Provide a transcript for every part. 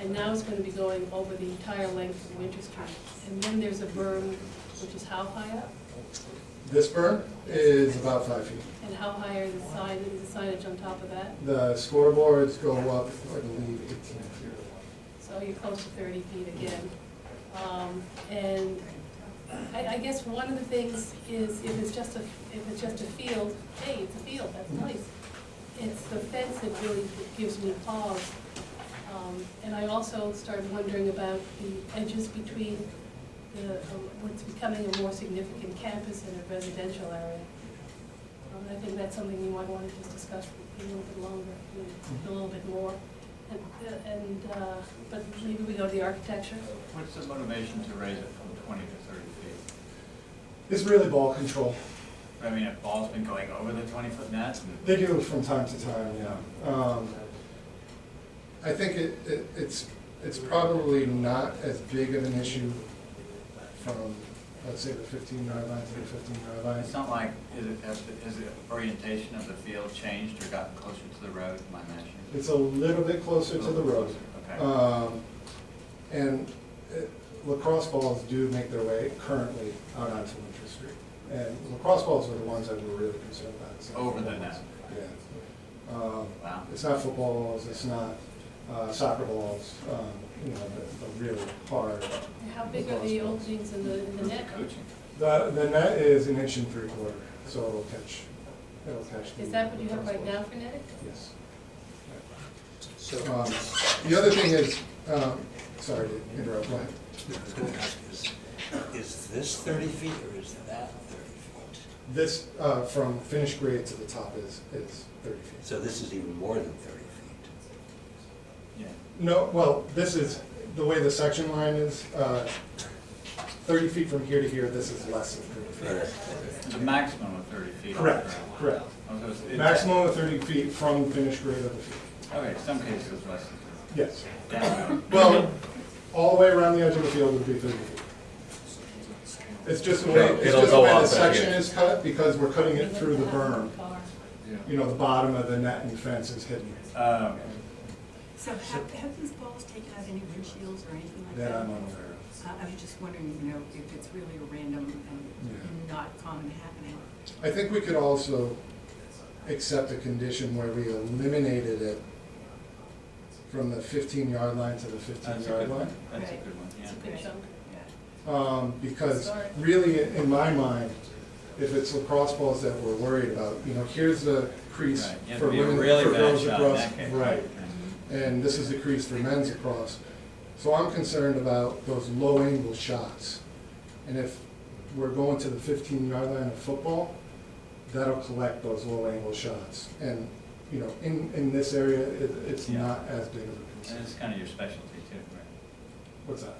and now it's gonna be going over the entire length of Winter Street. And then there's a berm, which is how high up? This berm is about five feet. And how high are the sign, the signage on top of that? The scoreboards go up, I believe, eighteen feet. So you're close to thirty feet again. Um, And I, I guess one of the things is if it's just a, if it's just a field, hey, it's a field, that's nice. It's the fence that really gives me pause. Um, And I also started wondering about the edges between the, um, what's becoming a more significant campus and a residential area. Um, I think that's something you might want to just discuss a little bit longer, a little bit more. And, uh, And, uh, but maybe we go to the architecture. What's the motivation to raise it from twenty to thirty feet? It's really ball control. I mean, if ball's been going over the twenty-foot net, They do it from time to time, yeah. Um, I think it, it, it's, it's probably not as big of an issue from, let's say, the fifteen yard line to the fifteen yard line. it's not like, is it, has the- is the orientation of the field changed or gotten closer to the road, am I imagining? It's a little bit closer to the road. Okay, Um, And uh, lacrosse balls do make their way currently out onto Winter Street. And lacrosse balls were the ones that we were really concerned about. It's not Over the footballs. net. Yeah. Um, wow. It's not football balls, it's not uh, soccer balls, um, you know, the the really hard. How big are the openings in the, in the net? Coaching. The, the net is an inch and three quarter, so it'll catch, it'll catch. the Is that what you have right lacrosse now balls. for netting? Yes. So, Um, The other thing is, um, sorry to interrupt, go ahead. is, is this thirty feet or is that thirty feet? This, uh, from finished grade to the top is, is thirty feet. So this is even more than thirty feet. Yeah, No, well, this is, the way the section line is, uh, thirty feet from here to here, this is less than thirty feet. it's a maximum of thirty feet. Correct, correct. Oh, so it's- it's- Maximum of thirty feet from finished grade of the field, Okay, some cases it's less than yes. thirty. Down the road. Well, all the way around the edge of the field would be thirty feet. It's just the way, it's It'll just the go way up the and section again. is cut, because we're cutting it through the berm. Yeah. You know, the bottom of the net and fence is hidden, Oh, okay. So have, have these balls taken out any windshields or anything like that? that I'm unaware of. Uh, I was just wondering, you know, if it's really a random and Yeah. not common happening. I think we could also accept a condition where we eliminated it from the fifteen yard line to the fifteen That's a yard good line. one, that's a good one, It's a yeah. good chunk. Um, because Sorry. really, in my mind, if it's lacrosse balls that we're worried about, you know, here's the crease Right, you have for to be a women, for really bad girls shot in across, that case. right, Okay. and this is the crease for men's across. So I'm concerned about those low angle shots. And if we're going to the fifteen yard line of football, that'll collect those low angle shots. And, you know, in, in this area, it, it's Yeah. not as big of a And concern. it's kind of your specialty too, right? What's that?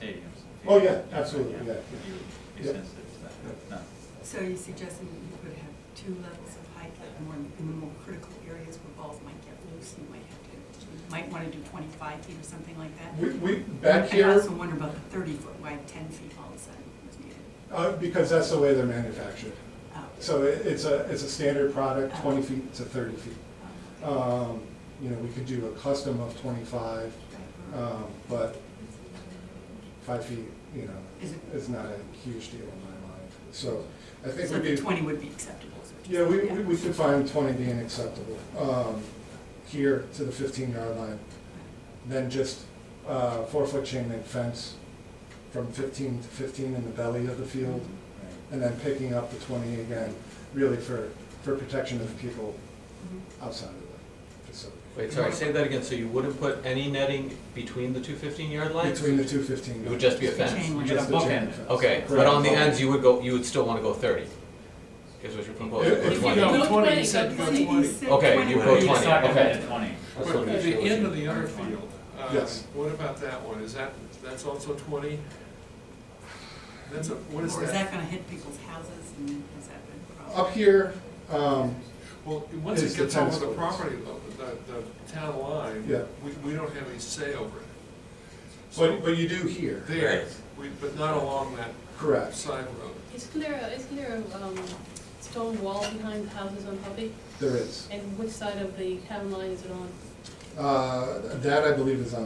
Stadiums. Oh, yeah, absolutely, yeah, yeah. You would be Yeah. sensitive to that, no. So you suggesting that you could have two levels of height, like more in the more critical areas where balls might get loose, you might have to, you might wanna do twenty-five feet or something like that. We, we, back I here, also wonder about the thirty foot wide, ten feet all of a sudden was needed. uh, because that's the way they're manufactured. Oh, So it, it's a, it's a standard product, twenty feet to thirty feet. oh, okay. Um, you know, we could do a custom of twenty-five, um, but five feet, you know, Is it- is not a huge deal in my mind. So I think So we the could, twenty would be acceptable. is what yeah, you're we, saying, we- we could find twenty being acceptable, um, here to the fifteen yard line. Then just, uh, four-foot chain link fence from fifteen to fifteen in the belly of the field. and then picking up the twenty again, really for, for protection of the people Mhm. outside of the facility. Wait, sorry, say that again, so you wouldn't put any netting between the two fifteen-yard lines? Between the two fifteen. It would just be a fence. Chain You link. get a Just the chain bookend. fence. Okay, but on the ends, you would go, you would still wanna go thirty, is what you're proposing, If- or if you twenty? Go No, That's to 20, 20, you said go go to 20. You said Okay, you put It's 20, not gonna okay. hit twenty. what I'm But at the sure end we of the should- other field, uh, Yes. what about that one? Is that, that's also twenty? That's a, what is Or is that that? gonna hit people's houses and is that the problem? Up here, um, Well, once It's it the gets over tennis the courts. property, lo- the, the town line, Yeah. we, we don't have any say over it. So but, but you do here, there, Right. we, but not along that correct, side road. Isn't there, a- isn't there a um, stone wall behind the houses on Hubby? there is. And which side of the town line is it on? Uh, that I believe is on